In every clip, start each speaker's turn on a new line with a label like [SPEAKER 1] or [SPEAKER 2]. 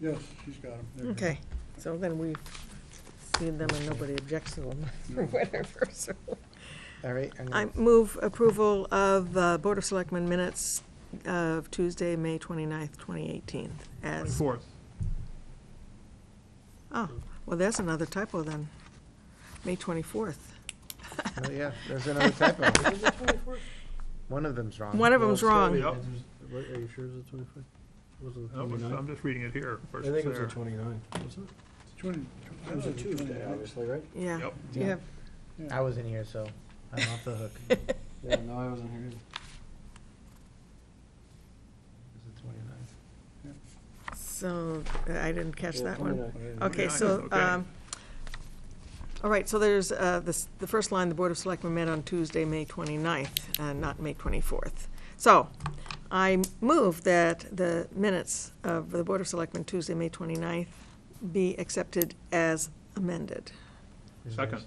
[SPEAKER 1] Yes, she's got them.
[SPEAKER 2] Okay, so then we've seen them and nobody objects to them or whatever, so.
[SPEAKER 3] All right, I'm
[SPEAKER 2] I
[SPEAKER 3] gonna-
[SPEAKER 2] move approval of uh, Board of Selectmen minutes of Tuesday, May 29th, 2018, as,
[SPEAKER 4] Fourth.
[SPEAKER 2] oh, well, there's another typo then. May 24th.
[SPEAKER 3] no, yeah, there's another typo. One of them's wrong.
[SPEAKER 2] One of them's wrong.
[SPEAKER 4] Yep.
[SPEAKER 5] What, are you sure it's the twenty-fifth? Was it the
[SPEAKER 4] No, it's- I'm
[SPEAKER 5] twenty-ninth?
[SPEAKER 4] just reading it here.
[SPEAKER 5] I
[SPEAKER 4] versus
[SPEAKER 5] think it was the
[SPEAKER 4] there.
[SPEAKER 5] twenty-ninth, wasn't
[SPEAKER 1] Twenty.
[SPEAKER 5] it? It was a Tuesday, obviously, right?
[SPEAKER 2] Yeah.
[SPEAKER 4] Yep.
[SPEAKER 2] Do you have-
[SPEAKER 3] I wasn't here, so I'm off the hook.
[SPEAKER 5] Yeah, no, I wasn't here either.
[SPEAKER 2] So, uh, I didn't catch
[SPEAKER 5] Yeah,
[SPEAKER 2] that one.
[SPEAKER 5] 29th.
[SPEAKER 2] Okay,
[SPEAKER 4] 29th,
[SPEAKER 2] so,
[SPEAKER 4] okay.
[SPEAKER 2] um, all right, so there's, uh, this, the first line, the Board of Selectmen met on Tuesday, May 29th, and not May 24th. So I move that the minutes of the Board of Selectmen Tuesday, May 29th be accepted as amended.
[SPEAKER 4] Second.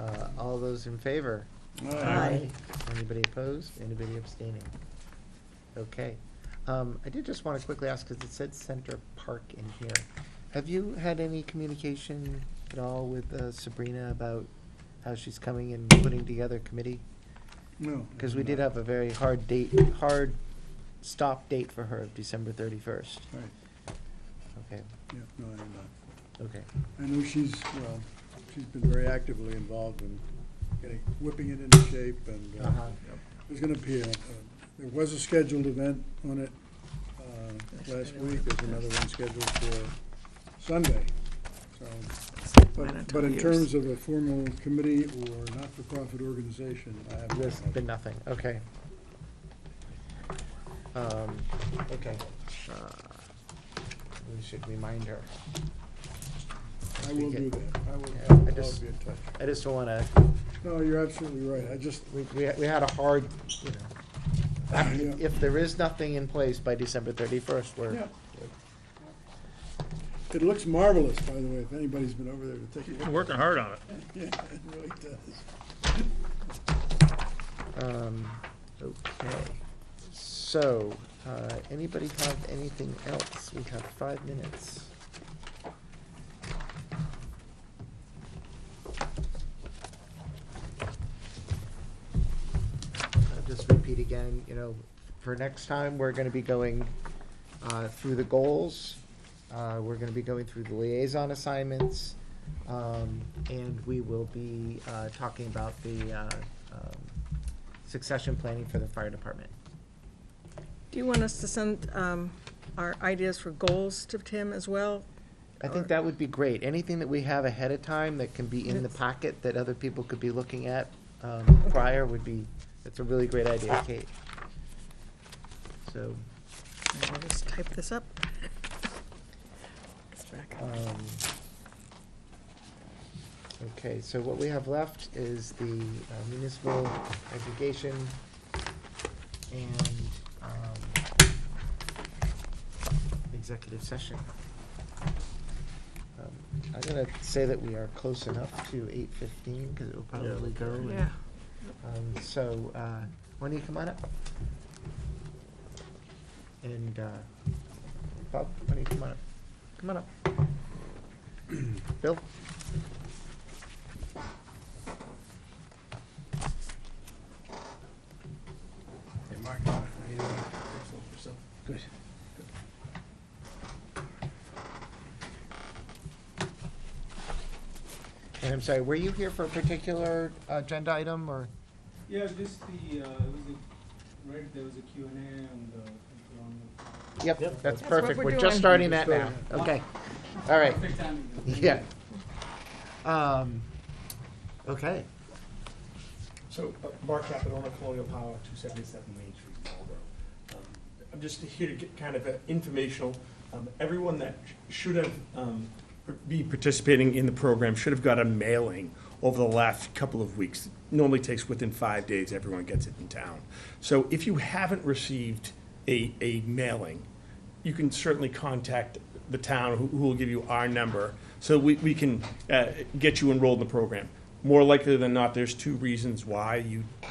[SPEAKER 3] Uh, all those in favor?
[SPEAKER 2] Aye.
[SPEAKER 3] Anybody opposed? Anybody abstaining? Okay. Um, I did just want to quickly ask, because it said Center Park in here. Have you had any communication at all with uh, Sabrina about how she's coming and putting together a committee?
[SPEAKER 1] No.
[SPEAKER 3] Because we did have a very hard date, hard stop date for her of December thirty-first.
[SPEAKER 1] Right,
[SPEAKER 3] Okay,
[SPEAKER 1] yeah, no, I did not.
[SPEAKER 3] okay.
[SPEAKER 1] I know she's, well, she's been very actively involved in getting, whipping it into shape and
[SPEAKER 3] Uh-huh.
[SPEAKER 1] uh,
[SPEAKER 5] Uh-huh.
[SPEAKER 1] there's gonna be, a- a- there was a scheduled event on it uh, last week. There's another one scheduled for Sunday, so. But, but in terms of a formal committee or not-for-profit organization, I have. no
[SPEAKER 3] There's
[SPEAKER 1] idea.
[SPEAKER 3] been nothing, okay. Um, okay. Uh, We should remind her.
[SPEAKER 1] I will do
[SPEAKER 3] Speak it.
[SPEAKER 1] that. I will,
[SPEAKER 3] Yeah, I
[SPEAKER 1] I'll be
[SPEAKER 3] just-
[SPEAKER 1] in touch.
[SPEAKER 3] I just don't wanna,
[SPEAKER 1] No, you're absolutely right. I just,
[SPEAKER 3] we, we, we had a hard, you know. I mean,
[SPEAKER 1] Yeah.
[SPEAKER 3] If there is nothing in place by December thirty-first, we're,
[SPEAKER 1] yeah. It looks marvelous, by the way, if anybody's been over there to take a
[SPEAKER 4] You've
[SPEAKER 1] look.
[SPEAKER 4] been working hard on it.
[SPEAKER 1] Yeah, it really does.
[SPEAKER 3] um, okay. So, uh, anybody have anything else? We have five minutes. I'll just repeat again, you know, for next time, we're gonna be going, uh, through the goals. Uh, we're gonna be going through the liaison assignments. Um, and we will be, uh, talking about the, uh, um, succession planning for the fire department.
[SPEAKER 2] Do you want us to send um, our ideas for goals to Tim as well?
[SPEAKER 3] I think that would be great. Anything that we have ahead of time that can be in the
[SPEAKER 2] Yes.
[SPEAKER 3] packet that other people could be looking at, um, prior would be, that's a really great idea, Kate. So,
[SPEAKER 2] I'll just type this up. It's back.
[SPEAKER 1] Uh,
[SPEAKER 3] Um, Okay, so what we have left is the uh, municipal aggregation and um, executive session. Um, I'm gonna say that we are close enough to eight fifteen, because it will probably go. and,
[SPEAKER 2] Yeah.
[SPEAKER 3] um, So, uh, why don't you come on up? And uh, Bob, why don't you come on up? Come on up. Bill?
[SPEAKER 1] Hey, Mark, how you doing? Yourself?
[SPEAKER 3] Good. And I'm sorry, were you here for a particular agenda item, or?
[SPEAKER 6] Yeah, just the, uh, it was a, right, there was a Q and uh, um, A on the, on the.
[SPEAKER 3] Yep, that's
[SPEAKER 2] what
[SPEAKER 3] perfect.
[SPEAKER 2] we're
[SPEAKER 3] We're
[SPEAKER 2] doing.
[SPEAKER 3] just starting that now.
[SPEAKER 1] Starting
[SPEAKER 3] Okay, all right.
[SPEAKER 6] Perfect timing. though.
[SPEAKER 3] Yeah. Um, okay.
[SPEAKER 7] So, uh, Mark Capitone, Colonial Power, 277 Main Street, Marlboro. Um, I'm just here to get kind of uh, informational. Um, Everyone that sh- should have, um, be participating in the program should have got a mailing over the last couple of weeks. Normally takes within five days, everyone gets it in town. So if you haven't received a, a mailing, you can certainly contact the town, who who will give you our number, so we, we can uh, get you enrolled in the program. More likely than not, there's two reasons why you